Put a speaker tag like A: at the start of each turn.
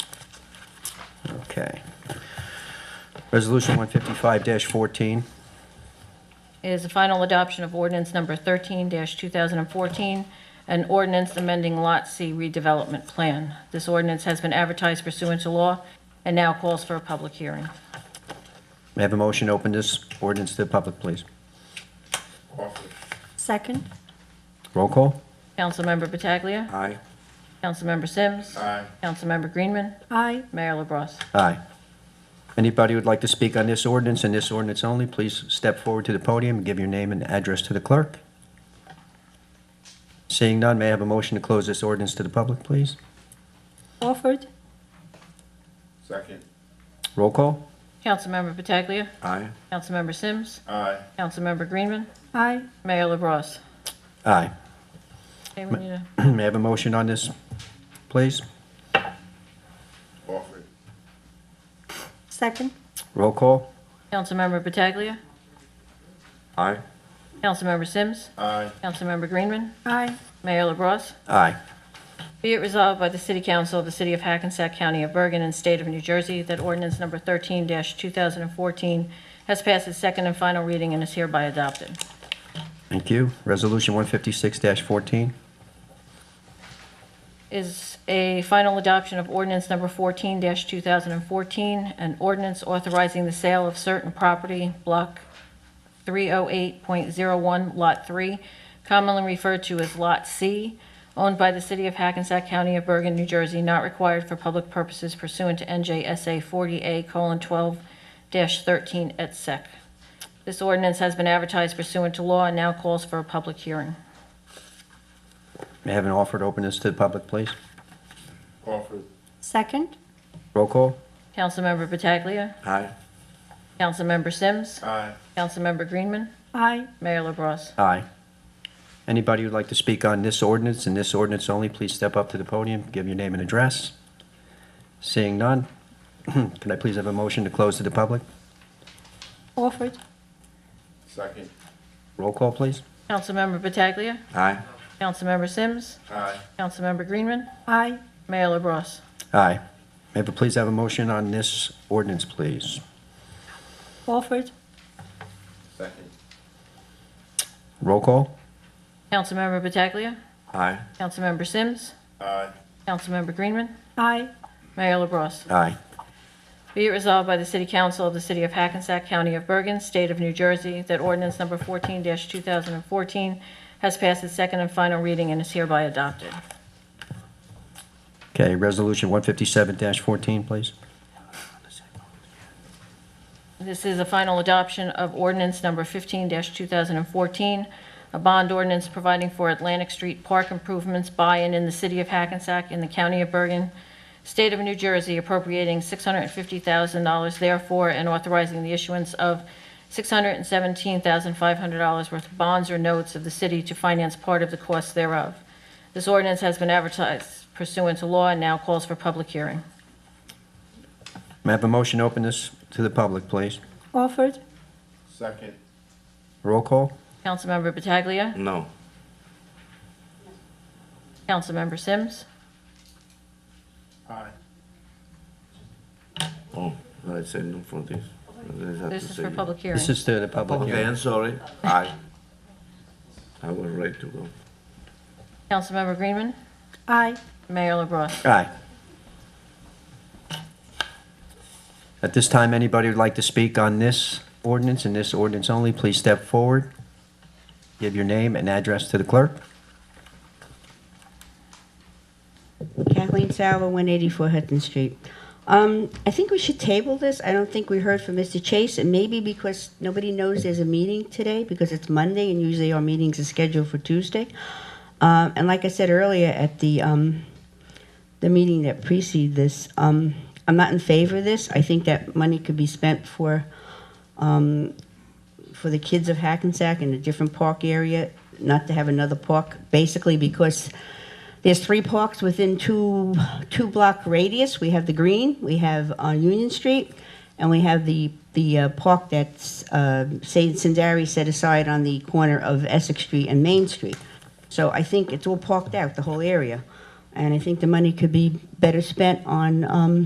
A: Okay. Resolution 155-14.
B: is the final adoption of ordinance number 13-2014, an ordinance amending Lot C redevelopment plan. This ordinance has been advertised pursuant to law and now calls for a public hearing.
A: May I have a motion to open this ordinance to the public, please?
C: Offer.
D: Second?
A: Roll call?
B: Councilmember Pataglia.
A: Aye.
B: Councilmember Sims.
C: Aye.
B: Councilmember Greenman.
D: Aye.
B: Mayor LaBrus.
A: Aye. Anybody who'd like to speak on this ordinance and this ordinance only, please step forward to the podium and give your name and address to the clerk. Seeing none, may I have a motion to close this ordinance to the public, please?
D: Offered?
C: Second.
A: Roll call?
B: Councilmember Pataglia.
A: Aye.
B: Councilmember Sims.
C: Aye.
B: Councilmember Greenman.
D: Aye.
B: Mayor LaBrus.
A: Aye.
B: Okay, we need a-
A: May I have a motion on this, please?
C: Offer.
D: Second?
A: Roll call?
B: Councilmember Pataglia.
A: Aye.
B: Councilmember Sims.
C: Aye.
B: Councilmember Greenman.
D: Aye.
B: Mayor LaBrus.
A: Aye.
B: Be it resolved by the City Council of the City of Hackensack County of Bergen and State of New Jersey that ordinance number 13-2014 has passed its second and final reading and is hereby adopted.
A: Thank you. Resolution 156-14.
B: Is a final adoption of ordinance number 14-2014, an ordinance authorizing the sale of certain property, Block 308.01, Lot 3, commonly referred to as Lot C, owned by the City of Hackensack County of Bergen, New Jersey, not required for public purposes pursuant to NJSA 40A:12-13 et sec. This ordinance has been advertised pursuant to law and now calls for a public hearing.
A: May I have an offer to open this to the public, please?
C: Offer.
D: Second?
A: Roll call?
B: Councilmember Pataglia.
A: Aye.
B: Councilmember Sims.
C: Aye.
B: Councilmember Greenman.
D: Aye.
B: Mayor LaBrus.
A: Aye. Anybody who'd like to speak on this ordinance and this ordinance only, please step up to the podium, give your name and address. Seeing none, can I please have a motion to close to the public?
D: Offered?
C: Second.
A: Roll call, please.
B: Councilmember Pataglia.
A: Aye.
B: Councilmember Sims.
C: Aye.
B: Councilmember Greenman.
D: Aye.
B: Mayor LaBrus.
A: Aye. May I please have a motion on this ordinance, please?
D: Offered?
C: Second.
A: Roll call?
B: Councilmember Pataglia.
A: Aye.
B: Councilmember Sims.
C: Aye.
B: Councilmember Greenman.
D: Aye.
B: Mayor LaBrus.
A: Aye.
B: Be it resolved by the City Council of the City of Hackensack County of Bergen, State of New Jersey, that ordinance number 14-2014 has passed its second and final reading and is hereby adopted.
A: Okay, resolution 157-14, please.
B: This is a final adoption of ordinance number 15-2014, a bond ordinance providing for Atlantic Street Park improvements by and in the city of Hackensack in the county of Bergen, state of New Jersey appropriating $650,000 therefore and authorizing the issuance of $617,500 worth of bonds or notes of the city to finance part of the costs thereof. This ordinance has been advertised pursuant to law and now calls for public hearing.
A: May I have a motion to open this to the public, please?
D: Offered?
C: Second.
A: Roll call?
B: Councilmember Pataglia.
E: Mm.
A: No.
B: Councilmember Sims.
C: Aye.
E: Oh, I said no for this. This have
B: This
E: to
B: is
E: say
B: for
E: yes.
B: public hearing.
A: This is to the public
E: Okay,
A: hearing.
E: I'm sorry. Aye. I was ready to go.
B: Councilmember Greenman,
D: Aye.
B: Mayor LaBrus.
A: Aye. At this time, anybody who'd like to speak on this ordinance and this ordinance only, please step forward. Give your name and address to the clerk.
F: Kathleen Sauer, 184 Hudson Street. Um, I think we should table this. I don't think we heard from Mr. Chase, and maybe because nobody knows there's a meeting today, because it's Monday, and usually our meetings are scheduled for Tuesday. Um, And like I said earlier, at the, um, the meeting that preceded this, um, I'm not in favor of this. I think that money could be spent for, um, for the kids of Hackensack in a different park area, not to have another park, basically because there's three parks within two, two block radius. We have the green, we have uh, Union Street, and we have the, the uh, park that's, uh, St. Sindari set aside on the corner of Essex Street and Main Street. So I think it's all parked out, the whole area. And I think the money could be better spent on, um,